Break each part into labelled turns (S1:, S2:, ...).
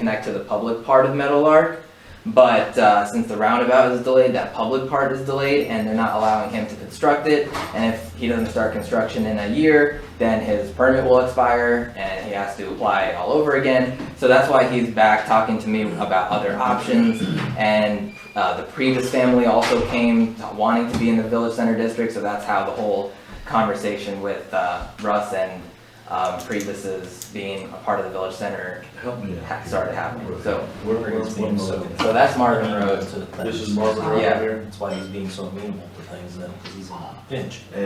S1: connect to the public part of Meadowlark. But uh, since the roundabout is delayed, that public part is delayed, and they're not allowing him to construct it. And if he doesn't start construction in a year, then his permit will expire, and he has to apply all over again. So that's why he's back talking to me about other options. And uh, the previous family also came wanting to be in the village center district, so that's how the whole conversation with uh, Russ and um, Priebus's being a part of the village center
S2: Help me out.
S1: ha- started happening. So,
S2: Where, where, where, where-
S1: so that's Marvin Road.
S2: This is Marvin Road
S1: Yeah.
S2: here,
S3: That's why he's being so amenable to things then, because he's in a pinch.
S1: Mm-hmm.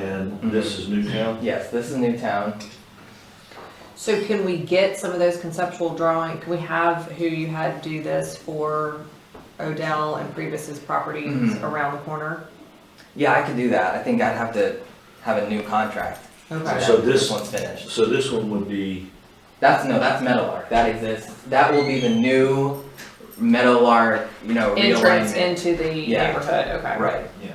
S2: and this is Newtown.
S1: Yes, this is Newtown.
S4: So can we get some of those conceptual drawing, can we have who you had do this for Odell and Priebus's properties
S1: Mhm.
S4: around the corner?
S1: Yeah, I could do that. I think I'd have to have a new contract.
S4: Okay,
S2: So this-
S1: one's finished.
S2: So this one would be,
S1: That's no, that's Meadowlark. That exists. That will be the new Meadowlark, you know,
S4: entrance
S1: realignment.
S4: into the
S1: Yeah.
S4: neighborhood, okay.
S1: Right.
S3: Yeah.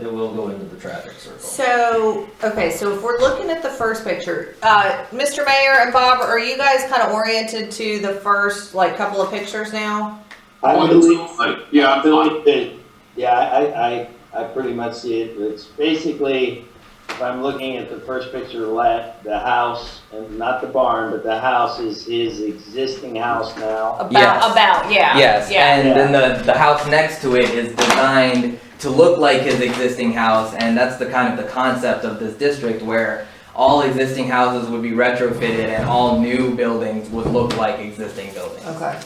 S3: It will go into the traffic circle.
S4: So, okay, so if we're looking at the first picture, uh, Mr. Mayor and Bob, are you guys kind of oriented to the first, like, couple of pictures now?
S5: I
S6: Well,
S5: believe,
S6: like, Yeah,
S5: I
S6: I feel like
S5: believe that, yeah, I, I, I pretty much see it, it's basically, if I'm looking at the first picture left, the house, and not the barn, but the house is his existing house now.
S4: About,
S1: Yes.
S4: about, yeah.
S1: Yes,
S4: Yeah.
S1: and then the, the house next to it is designed to look like his existing house, and that's the kind of the concept of this district where all existing houses would be retrofitted and all new buildings would look like existing buildings.
S4: Okay.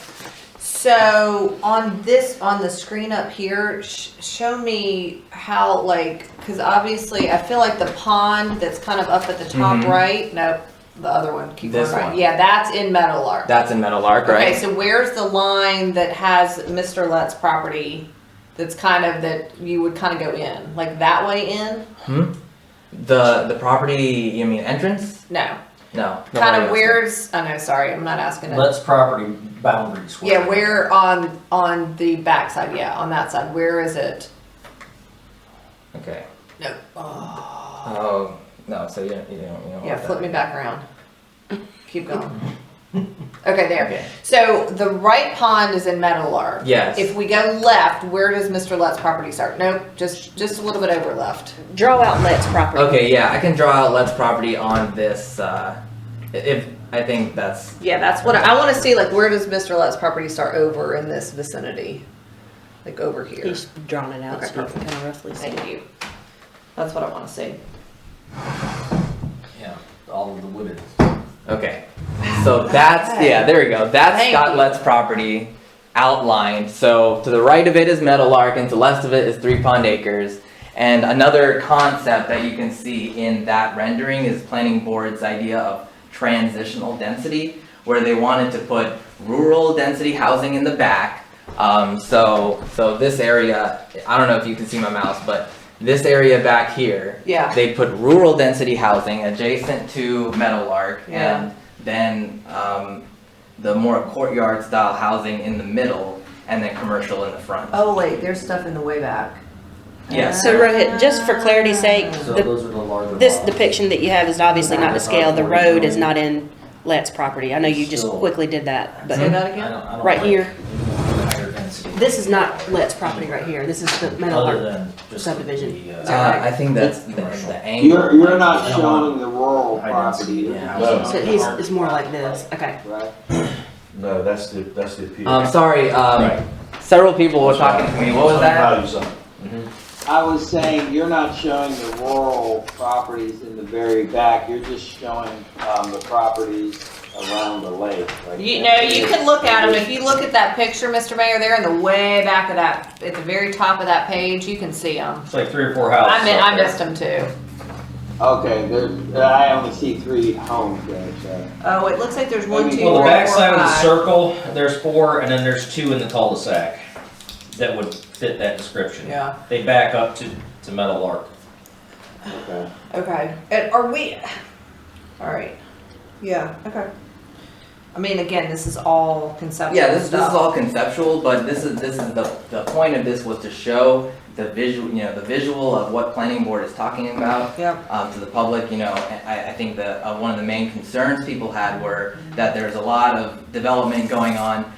S4: So on this, on the screen up here, sh- show me how like, cause obviously I feel like the pond that's kind of up at the top
S1: Mhm.
S4: right. No, the other one. Keep
S1: This
S4: going right.
S1: one.
S4: Yeah, that's in Metalark.
S1: That's in Meadowlark,
S4: Okay, so where's the line that has Mr. Lett's property? That's kind of that you would kind of go in, like that way in?
S1: The the property, you mean entrance?
S4: No,
S1: No.
S4: kind of where's? Oh no, sorry, I'm not asking it.
S3: Let's property boundaries. work.
S4: Yeah, where on on the backside? Yeah, on that side. Where is it?
S1: Okay.
S4: No. Oh.
S1: Oh no, so you don't you don't, you don't
S4: Yeah,
S1: want
S4: flip
S1: that.
S4: me back around. Keep going. Okay, there.
S1: Okay.
S4: So the right pond is in Meadowlark.
S1: Yes.
S4: If we go left, where does Mr. Lett's property start? Nope, just, just a little bit over left.
S7: Draw out Let's property.
S1: okay, yeah, I can draw out Let's property on this uh i- if I think that's
S4: Yeah, that's what, I wanna see, like, where does Mr. Lett's property start over in this vicinity? Like, over here.
S7: He's drawn it out
S4: Okay,
S7: so you can kind of roughly see.
S4: Thank you. That's what I wanna see.
S3: Yeah, all of the wooded.
S1: okay. So that's yeah, there we go. That's
S4: Thank
S1: got
S4: you.
S1: Let's property outlined. So to the right of it is Meadowlark and to the left of it is Three Pond Acres. And another concept that you can see in that rendering is planning board's idea of transitional density, where they wanted to put rural density housing in the back. Um, so, so this area, I don't know if you can see my mouse, but this area back here,
S4: Yeah.
S1: they put rural density housing adjacent to Meadowlark,
S4: Yeah.
S1: and then um, the more courtyard style housing in the middle, and then commercial in the front.
S4: Oh, wait, there's stuff in the way back.
S1: Yes.
S7: So Rohit, just for clarity's sake,
S3: So
S7: the-
S3: those are the larger.
S7: this
S3: lots.
S7: depiction that you have is obviously not to scale. The road is not in Let's property. I know you just
S3: Still.
S7: quickly did that,
S4: Say
S7: but
S4: that
S3: I don't-
S4: again?
S3: I don't
S7: Right
S3: like
S7: here.
S3: the higher density.
S7: this is not Let's property right here. This is the metal
S3: Other
S7: art.
S3: than just
S7: subdivision.
S3: the, uh,
S1: Uh, I think that's the,
S3: Commercial.
S1: the angle. Um,
S5: You're, you're not
S3: Yeah.
S5: showing the rural
S3: I don't see
S5: property.
S3: the
S5: You're
S3: house.
S5: showing
S7: So
S5: the
S7: he's,
S5: home,
S7: it's more like this. Okay.
S5: Right?
S2: no, that's the, that's the appeal.
S1: Um, sorry, um,
S3: Right.
S1: several people were talking to me. What was that?
S2: Some values
S3: mm-hmm.
S5: I was saying, you're not showing the rural properties in the very back, you're just showing, um, the properties around the lake. like
S4: You know,
S5: that.
S4: you can look at them. If you look at that picture, Mr. Mayor, there in the way back of that, at the very top of that page, you can see them.
S3: It's like three or four houses.
S4: I mean,
S3: up
S4: I
S3: there.
S4: missed them too.
S5: Okay, there, I only see three homes there, so.
S4: Oh, it looks like there's one, two, three,
S3: Well, the
S4: four,
S3: back side of the
S4: five.
S3: circle, there's four, and then there's two in the cul-de-sac that would fit that description.
S4: Yeah,
S3: They back up to, to Metal Arc.
S5: Okay.
S4: okay. And are we, all right. Yeah, okay. I mean, again, this is all conceptual
S1: Yeah, this, this is
S4: stuff.
S1: all conceptual, but this is this is the the point of this was to show the visual, you know, the visual of what planning board is talking about
S4: Yep.
S1: um, to the public, you know, I, I think that uh, one of the main concerns people had were that there's a lot of development going on